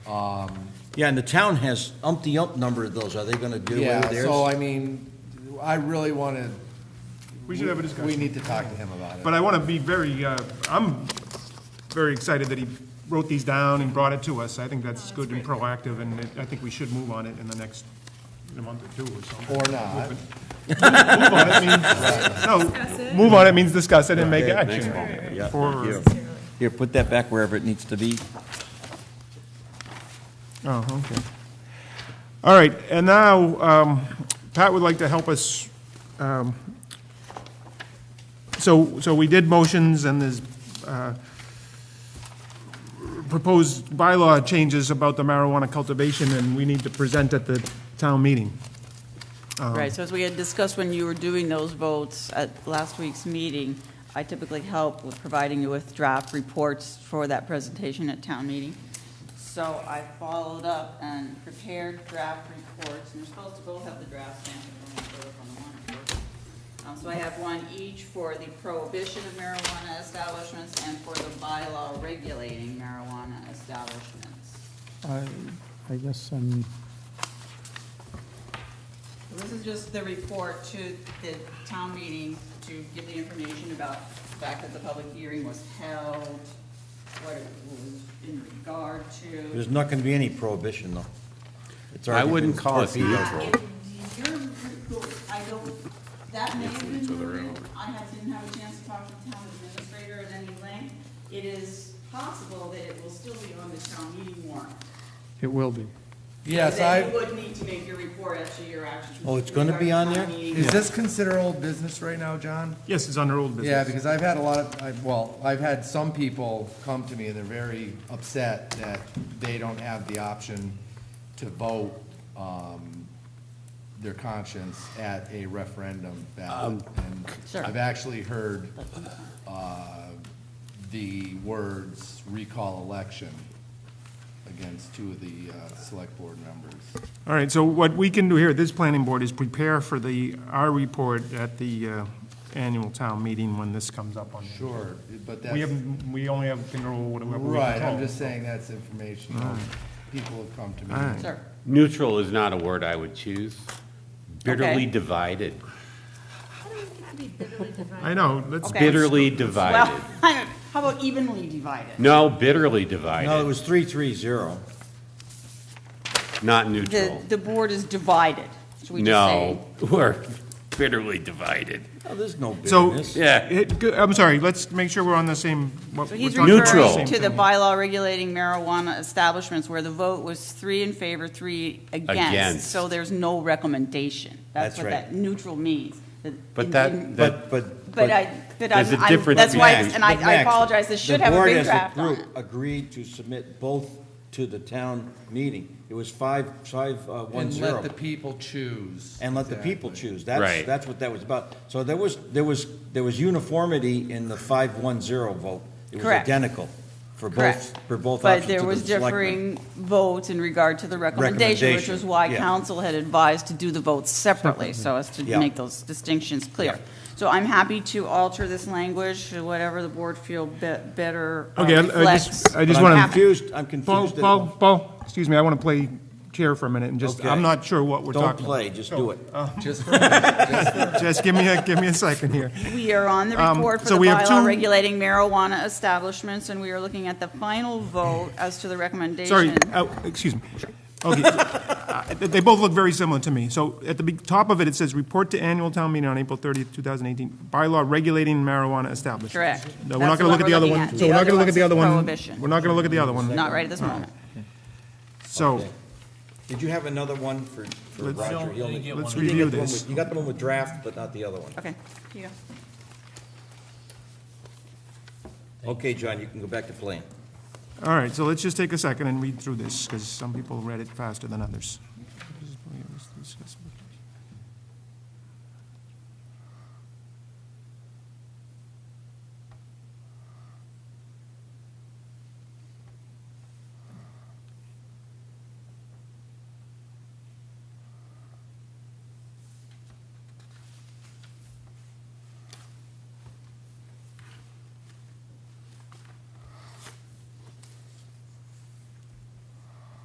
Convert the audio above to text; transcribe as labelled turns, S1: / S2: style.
S1: Um,
S2: Yeah, and the town has umpty-ump number of those. Are they gonna do away
S1: Yeah,
S2: with theirs?
S1: so I mean, I really want to.
S3: We should have a discussion.
S1: We need to talk to him about it.
S3: But I want to be very, uh, I'm very excited that he wrote these down and brought it to us. I think that's good and proactive, and it- I think we should move on it in the next in a month or two or something.
S1: Or not.
S3: Move it. Move on it means, no, move on it means discuss it and make action.
S2: Yeah, thank
S3: For-
S2: you. Here, put that back wherever it needs to be.
S3: Oh, okay. All right, and now, um, Pat would like to help us, um, so, so we did motions and there's uh, proposed bylaw changes about the marijuana cultivation, and we need to present at the town meeting.
S4: Right, so as we had discussed when you were doing those votes at last week's meeting, I typically help with providing you with draft reports for that presentation at town meeting. So I followed up and prepared draft reports, and you're supposed to both have the draft stamp and then vote on the one, of course. Um, So I have one each for the prohibition of marijuana establishments and for the bylaw regulating marijuana establishments.
S5: I I guess um, I'm,
S4: This is just the report to the town meeting to give the information about the fact that the public hearing was held, what it was in regard to.
S2: There's not gonna be any prohibition, though. It's
S6: I
S2: already been
S6: wouldn't call it
S2: torpedoed.
S4: If Your report, I don't, that may have been moved. I have, didn't have a chance to talk to the town administrator at any length. It is possible that it will still be on the town meeting warrant.
S5: it will be.
S1: Yes,
S4: Then you
S1: I,
S4: would need to make your report as to your actions.
S2: Oh, it's gonna be on there?
S1: is this considered old business right now, John?
S3: Yes, it's under old business.
S1: Yeah, because I've had a lot of, I- well, I've had some people come to me and they're very upset that they don't have the option to vote um, their conscience at a referendum ballot. And
S4: Sure.
S1: I've actually heard uh, the words recall election against two of the uh, select board members.
S3: All right, so what we can do here, at this planning board, is prepare for the, our report at the uh, annual town meeting when this comes up on. the-
S1: Sure, but that's.
S3: We have, we only have control whatever we
S1: Right, I'm
S3: control.
S1: just saying that's information that people have come to me.
S3: Alright.
S4: Sir.
S6: Neutral is not a word I would choose. Bitterly
S4: Okay.
S6: divided.
S3: I know, let's.
S4: Okay.
S6: Bitterly
S4: Well,
S6: divided.
S4: how about evenly divided?
S6: No, bitterly
S2: No, it
S6: divided,
S2: was three-three-zero.
S6: not
S4: The,
S6: neutral.
S4: the board is divided, should we just say?
S6: No, we're bitterly divided.
S2: Oh, there's no
S3: So,
S2: business.
S6: Yeah.
S3: it- go- I'm sorry, let's make sure we're on the same. what
S4: So
S3: we're
S4: he's
S3: talking about the
S6: Neutral.
S4: referring
S3: same
S4: to the
S3: thing.
S4: bylaw regulating marijuana establishments where the vote was three in favor, three against.
S6: Against.
S4: So there's no recommendation.
S2: That's
S4: That's what
S2: right.
S4: that neutral means. that
S6: But
S4: it
S6: that-
S4: didn't-
S2: But,
S6: that-
S2: but.
S4: But I, but I'm,
S6: There's a
S4: I'm-
S6: difference
S4: that's why,
S6: between-
S4: and I
S2: But
S4: I
S2: Max,
S4: appreciate, this should have a big draft on
S2: The board
S4: it.
S2: as a group agreed to submit both to the town meeting. It was five, five, uh, one,
S1: And let the
S2: zero.
S1: people choose.
S2: And let the people
S1: Exactly.
S2: choose. That's,
S6: Right.
S2: that's what that was about. So there was, there was, there was uniformity in the five-one-zero vote. It was
S4: Correct.
S2: identical for both,
S4: Correct.
S2: for both
S4: But
S2: options to
S4: there
S2: the
S4: was
S2: selectmen.
S4: differing votes in regard to the recommendation, which was
S2: Recommendation,
S4: why
S2: yeah.
S4: council had advised to do the votes separately, so as to
S2: Yeah.
S4: make those distinctions clear.
S2: Yeah.
S4: So I'm happy to alter this language to whatever the board feel be- better uh,
S3: Okay, I- I just,
S4: reflects.
S3: I just
S2: But I'm
S3: want to.
S2: confused, I'm
S3: Paul,
S2: confused. that-
S3: Paul, Paul, excuse me, I want to play chair for a minute and just,
S2: Okay.
S3: I'm not sure what we're
S2: Don't
S3: talking about.
S2: play, just do it.
S1: Just for, just for
S3: Just give me a, give me a second here.
S4: We are on the
S3: Um,
S4: report for
S3: so
S4: the
S3: we have
S4: bylaw
S3: two-
S4: regulating marijuana establishments, and we are looking at the final vote as to the recommendation.
S3: Sorry, uh, excuse me. Okay, uh, They both look very similar to me. So at the be- top of it, it says, "Report to annual town meeting on April 30th, 2018, bylaw regulating marijuana establishments."
S4: Correct.
S3: No, we're not
S4: That's the
S3: going to
S4: one
S3: look at the
S4: we're
S3: other
S4: looking
S3: one.
S4: at.
S3: So
S4: The
S3: we're not
S4: other
S3: going to look at the
S4: one's
S3: other one.
S4: prohibition.
S3: We're not going to look at the other one.
S4: Not right at this moment.
S3: So,
S2: Did you have another one for, for
S3: Let's-
S2: Roger? He only-
S3: let's
S2: you did
S3: review
S2: get the one
S3: this.
S2: with- You got the one with draft, but not the other one.
S4: Okay, here you go.
S2: Okay, John, you can go back to playing.
S3: all right, so let's just take a second and read through this, because some people read it faster than others.